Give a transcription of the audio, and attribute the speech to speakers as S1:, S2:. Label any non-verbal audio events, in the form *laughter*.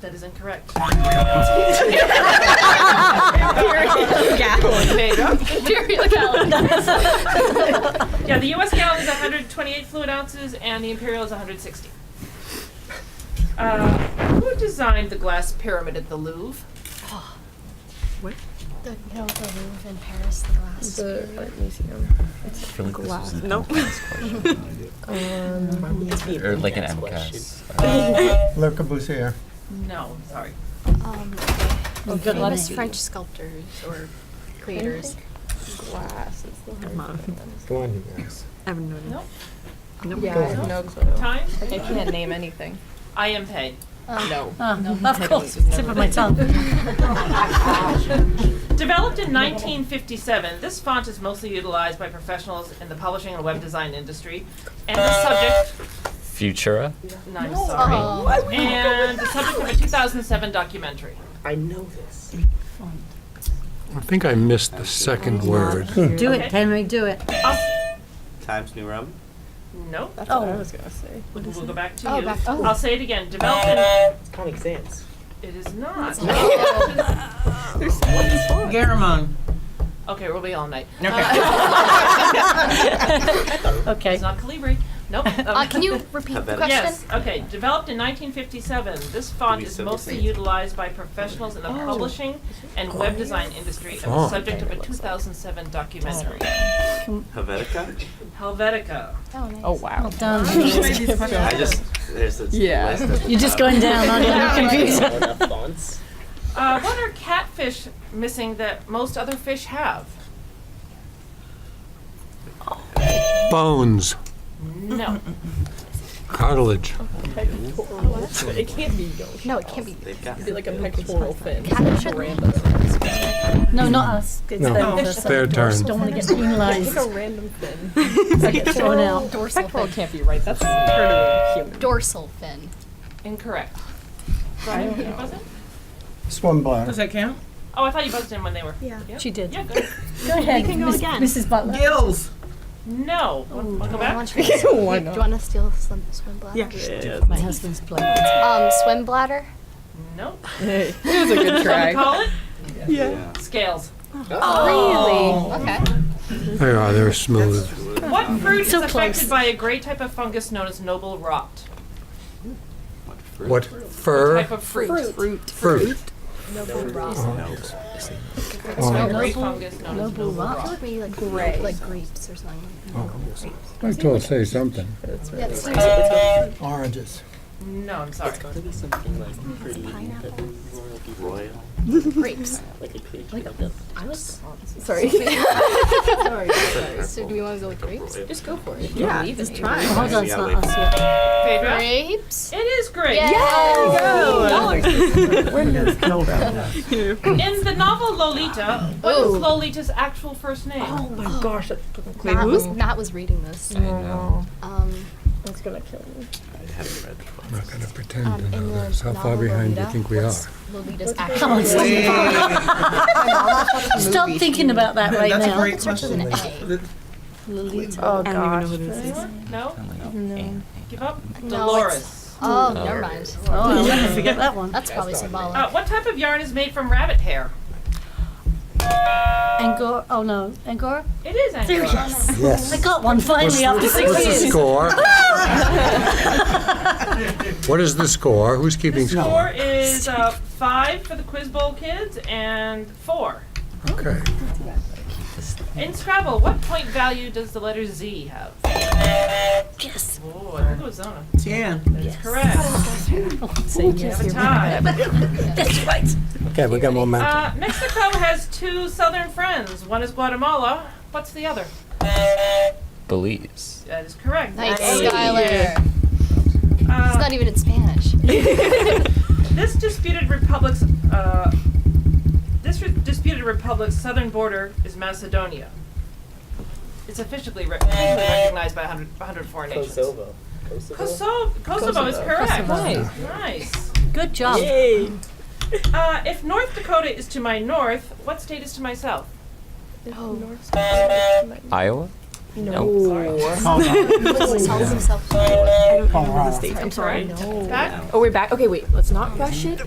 S1: That is incorrect. Imperial gallon. yeah, the U.S. gallon is 128 fluid ounces, and the imperial is 160. Uh, who designed the glass pyramid at the Louvre?
S2: The, no, the Louvre in Paris, the glass.
S3: The art museum.
S4: I feel like this was an
S5: Nope.
S4: MCAS question.
S3: Um,
S4: Or like an MCAS.
S6: Le Corbusier.
S1: No, sorry.
S2: um,
S3: good luck
S2: famous
S3: to you.
S2: French sculptors or creators.
S3: glass is the hard
S5: on.
S3: part, honestly.
S6: Go on, you guys.
S5: I have no idea.
S1: Nope.
S5: Nope.
S3: Yeah,
S6: Go
S3: I have
S6: on.
S3: no clue.
S1: Time?
S3: I can't name
S2: *laughs*
S3: anything.
S1: I am paid.
S3: No.
S7: Mm-hmm. Of course, tip of my tongue.
S2: *laughs*
S1: Developed in 1957, this font is mostly utilized by professionals in the publishing and web design industry, and the subject.
S4: Futura?
S1: No, I'm sorry.
S2: Oh.
S1: and the subject of a 2007 documentary.
S5: I know this.
S8: I think I missed the second word.
S7: Do
S1: Okay.
S7: it, Henry, do it.
S9: Times New Roman.
S1: No,
S3: That's what I was gonna say.
S1: we'll go back to
S2: Oh,
S1: you.
S2: back to-
S1: I'll say it again. Developed in.
S5: Comic Sans.
S1: It is not.
S5: Garamond.
S1: okay, we'll be all night. Uh,
S2: *laughs*
S7: Okay.
S1: It's not Calibri. Nope. Um,
S2: Uh, can
S1: *laughs*
S2: you repeat
S9: I
S2: the
S9: bet it-
S2: question?
S1: Yes. Okay. Developed in 1957, this font
S9: Did we
S1: is
S9: say the
S1: mostly
S9: same?
S1: utilized by professionals in the
S2: Oh.
S1: publishing and web design industry, and the
S8: Font.
S1: subject of a 2007 documentary,
S9: Helvetica.
S1: Helvetica.
S2: Oh, nice.
S3: Oh, wow.
S7: Done.
S9: I just there's this
S3: Yeah.
S9: list of
S7: You're just going down on your
S2: *laughs*
S7: computer.
S5: fonts.
S1: Uh, what are catfish missing that most other fish have?
S8: Bones,
S1: No.
S8: cartilage.
S3: It can't be gosh.
S2: No, it can't be.
S9: They've got
S3: It'd be like a pectoral fin.
S2: Catfish are
S3: Random.
S7: No, not us. It's
S8: No.
S7: them.
S8: No.
S7: Just
S8: Fair turn.
S7: Don't want to get
S3: Like
S7: penalized.
S3: a random fin.
S7: Thrown out.
S2: Dorsal
S3: Pectoral
S2: fin.
S3: can't be right. That's pretty human.
S2: Dorsal fin.
S1: Incorrect. Brian, can you buzz in?
S6: Swim bladder.
S5: Does that count?
S1: Oh, I thought you buzzed in when they were. Yeah.
S7: She did.
S1: Yeah, good.
S7: Go ahead, Miss- Mrs. Butler.
S5: Gills.
S1: No. Want to go
S2: I
S1: back?
S2: want you- Do
S3: Why
S2: you
S3: not?
S2: want to steal some swim bladder?
S7: My husband's plate.
S2: Um, swim bladder?
S1: No.
S3: Hey, it was a good
S1: Someone
S3: try.
S1: call it?
S9: yeah.
S1: Scales.
S2: Really? Okay.
S8: They are, they're smooth.
S1: What fruit is
S7: So
S1: affected
S7: close.
S1: by a great type of fungus known as noble rot?
S8: What fur?
S1: Type of fruit.
S3: Fruit.
S8: Er. Fruit.
S1: It's a great fungus known as noble
S2: I
S1: rot.
S2: would be like, like grapes or something.
S8: I told say something.
S2: Yeah, it's
S6: Oranges.
S1: No, I'm sorry.
S2: pineapple.
S9: Royal.
S2: Grapes.
S3: Sorry.
S2: So do we want to go with grapes?
S3: Just go for it. Yeah, just try.
S7: Hold on, it's not us yet.
S1: Phaedra?
S2: Grapes?
S1: It is great.
S6: *laughs*
S1: In the novel Lolita, what is
S2: Ooh. Oh,
S1: Lolita's actual first name?
S3: my gosh, that
S2: Matt was, Matt was reading this. Um,
S3: that's gonna kill me.
S9: I haven't read the book.
S8: I'm not gonna
S2: um,
S8: pretend to
S2: in the
S8: know this. How far
S2: novel
S8: behind do you
S2: Lolita,
S8: think we are?
S2: what's Lolita's actual
S7: Come on, stop. Stop thinking about that right
S5: That's a
S7: now.
S5: great question.
S2: an A.
S3: Oh
S5: I don't
S3: gosh.
S5: even know what it is.
S1: No? Give up?
S2: No, it's-
S1: Dolores.
S2: Oh, never mind.
S7: Oh, I'll never forget that one.
S2: That's Oh, probably symbolic.
S1: Uh, what type of yarn is made from rabbit hair?
S7: Angora, oh no, Angora?
S1: It is Angora.
S7: I got one finally after six
S8: What's the
S7: years.
S8: score? What is the score? Who's
S1: The
S8: keeping
S1: score
S8: score?
S1: is uh, five for the Quiz Bowl kids and four.
S8: Okay.
S1: In Scrabble, what point value does the letter Z have?
S7: Yes.
S1: Oh, I think it was Zona.
S5: Jan.
S1: That's
S2: *laughs*
S1: correct.
S7: Say yes.
S1: Have a tie.
S7: That's right.
S6: Okay, we got momentum.
S1: *laughs* Uh, Mexico has two southern friends. One is Guatemala. What's the other?
S4: Belize.
S1: That is correct.
S2: Nice, Skylar. It's
S1: Uh,
S2: not even in Spanish.
S1: This disputed republic's uh, this re- disputed republic's southern border is Macedonia. It's officially, re- officially recognized by 100, 104 nations.
S5: Eh. Kosovo.
S1: Kosovo, Kosovo is correct.
S3: Kosovo.
S1: Nice.
S7: Good job.
S5: Yay.
S7: *laughs*
S1: Uh, if North Dakota is to my north, what state is to my south?
S2: Oh,
S4: Iowa?
S2: he tells himself.
S6: Colorado.
S1: I'm sorry.
S3: Oh, we're back. Okay, wait. Let's not rush it.